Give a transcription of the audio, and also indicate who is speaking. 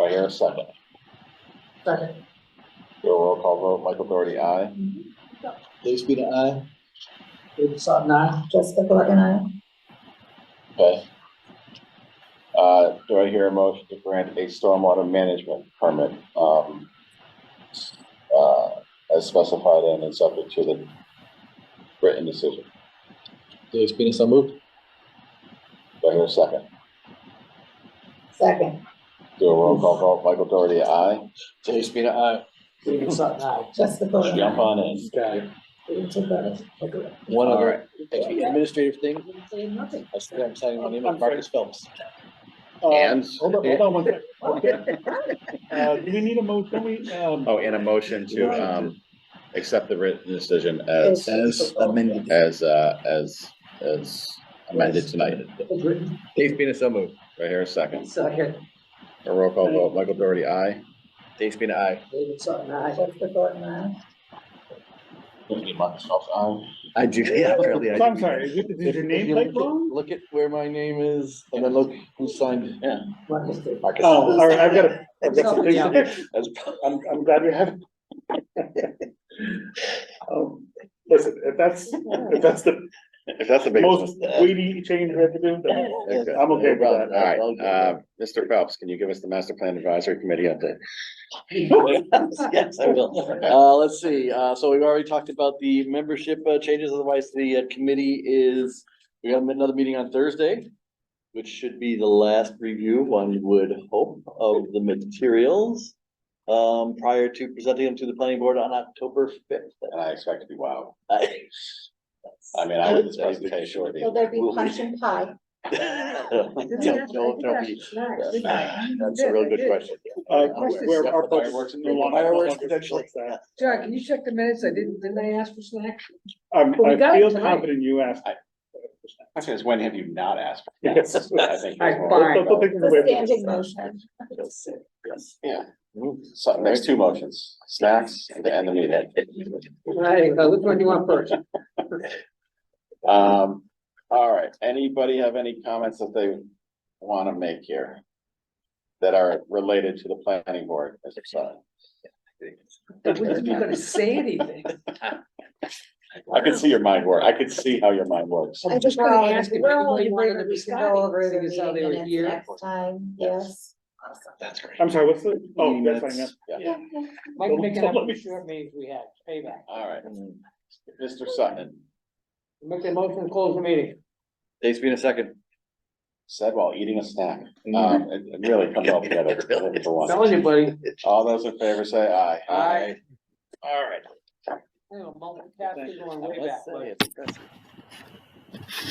Speaker 1: I hear a second?
Speaker 2: Second.
Speaker 1: Do a roll call vote, Michael Doherty, aye. Dave Spina, aye.
Speaker 2: David Sutton, aye.
Speaker 3: Jessica Gordon, I.
Speaker 1: Okay. Uh, do I hear a motion to grant a stormwater management permit, um, uh, as specified and is subject to the written decision?
Speaker 4: Dave Spina, so moved.
Speaker 1: Do I hear a second?
Speaker 3: Second,
Speaker 1: Do a roll call vote, Michael Doherty, aye.
Speaker 4: Dave Spina, aye.
Speaker 2: David Sutton, aye.
Speaker 3: Jessica Gordon,
Speaker 1: Jump
Speaker 3: I.
Speaker 1: on in.
Speaker 4: Okay.
Speaker 3: Rachel Gordon, Gordon.
Speaker 4: eh? One
Speaker 1: All
Speaker 4: other
Speaker 1: right.
Speaker 4: administrative thing.
Speaker 2: Nothing.
Speaker 4: I said I'm signing my name on Marcus Phelps.
Speaker 5: And-
Speaker 6: Uh, Hold on, hold on one second. Uh, do we need a mo, don't we, um,
Speaker 5: Oh, and a motion to, um, accept the written decision as,
Speaker 4: As amended.
Speaker 5: as, uh, as, as amended tonight.
Speaker 2: It's written.
Speaker 4: Dave Spina, so moved.
Speaker 5: Right here, a second.
Speaker 2: Second.
Speaker 5: A roll call vote, Michael Doherty, aye.
Speaker 4: Dave Spina, aye.
Speaker 2: David Sutton, aye.
Speaker 3: Jessica Gordon, I.
Speaker 1: Anthony Microsoft, aye.
Speaker 4: I do, yeah, apparently I
Speaker 6: so
Speaker 4: do.
Speaker 6: I'm sorry, is it- is your name like long?
Speaker 4: Look at where my name is and then look who signed.
Speaker 5: Yeah.
Speaker 2: What is it?
Speaker 4: Marcus.
Speaker 6: Oh, all right, I've got a, I've got some things
Speaker 2: Yeah.
Speaker 6: to fix. I'm, I'm glad we have. Um, Listen, if that's, if that's the
Speaker 5: If that's a big.
Speaker 6: most weighty change we have to do, then I'm okay with
Speaker 5: All
Speaker 6: that.
Speaker 5: right, uh, Mr. Phelps, can you give us the master plan advisory committee update?
Speaker 4: Yes, I will. Uh, let's see, uh, so we've already talked about the membership uh, changes, otherwise the uh, committee is, we have another meeting on Thursday, which should be the last review, one would hope, of the materials, um, prior to presenting them to the planning board on October fifth.
Speaker 1: And I expect to be wow. I mean, I
Speaker 4: would
Speaker 1: did this presentation.
Speaker 3: Will there be punch and pie?
Speaker 5: That's a real good question.
Speaker 6: Uh,
Speaker 2: Question.
Speaker 6: where our focus
Speaker 4: Fireworks.
Speaker 6: no longer- no
Speaker 4: Fireworks
Speaker 6: longer
Speaker 4: potentially.
Speaker 6: supports that.
Speaker 2: John, can you check the minutes? I didn't, didn't I ask for snacks?
Speaker 6: Um,
Speaker 2: But we got
Speaker 6: I
Speaker 2: it
Speaker 6: feel
Speaker 2: tonight.
Speaker 6: confident you asked.
Speaker 1: I said, when have you not asked? for
Speaker 6: Yes.
Speaker 1: this? I think
Speaker 2: All
Speaker 1: it's
Speaker 2: right,
Speaker 1: more-
Speaker 2: fine.
Speaker 6: Don't- don't take it
Speaker 3: The
Speaker 6: away from me.
Speaker 3: standing motion.
Speaker 4: Yes.
Speaker 1: Yeah. So next two motions, snacks and the end of the meeting.
Speaker 2: Right, uh, which one do you want first?
Speaker 1: Um, all right, anybody have any comments that they wanna make here? That are related to the planning board as a sign?
Speaker 2: We're not gonna say anything.
Speaker 1: I could see your mind work, I could see how your mind works.
Speaker 2: I'm just gonna ask if
Speaker 3: Well,
Speaker 2: anybody
Speaker 3: we
Speaker 2: wanted
Speaker 3: were-
Speaker 2: to be
Speaker 3: we can go over
Speaker 2: Scotty,
Speaker 3: the
Speaker 2: seeing as how they were
Speaker 3: meeting
Speaker 2: here.
Speaker 3: minutes Next time, yes.
Speaker 4: That's great.
Speaker 6: I'm sorry, what's the, oh, that's fine, yeah.
Speaker 4: Minutes.
Speaker 3: Yeah, yeah.
Speaker 2: Mike picking up the short meetings we had, payback.
Speaker 1: All right, Mr. Sutton
Speaker 2: Make the motion to close the meeting.
Speaker 4: Dave's been a second.
Speaker 1: said while eating a snack, um, it it really comes all together. for
Speaker 2: I'm
Speaker 1: once.
Speaker 2: Telling you, buddy.
Speaker 1: All those in favor say aye.
Speaker 2: Aye.
Speaker 1: All right.
Speaker 2: You know, multitasking going way
Speaker 4: Let's
Speaker 2: back,
Speaker 4: say
Speaker 2: buddy.
Speaker 4: it's impressive.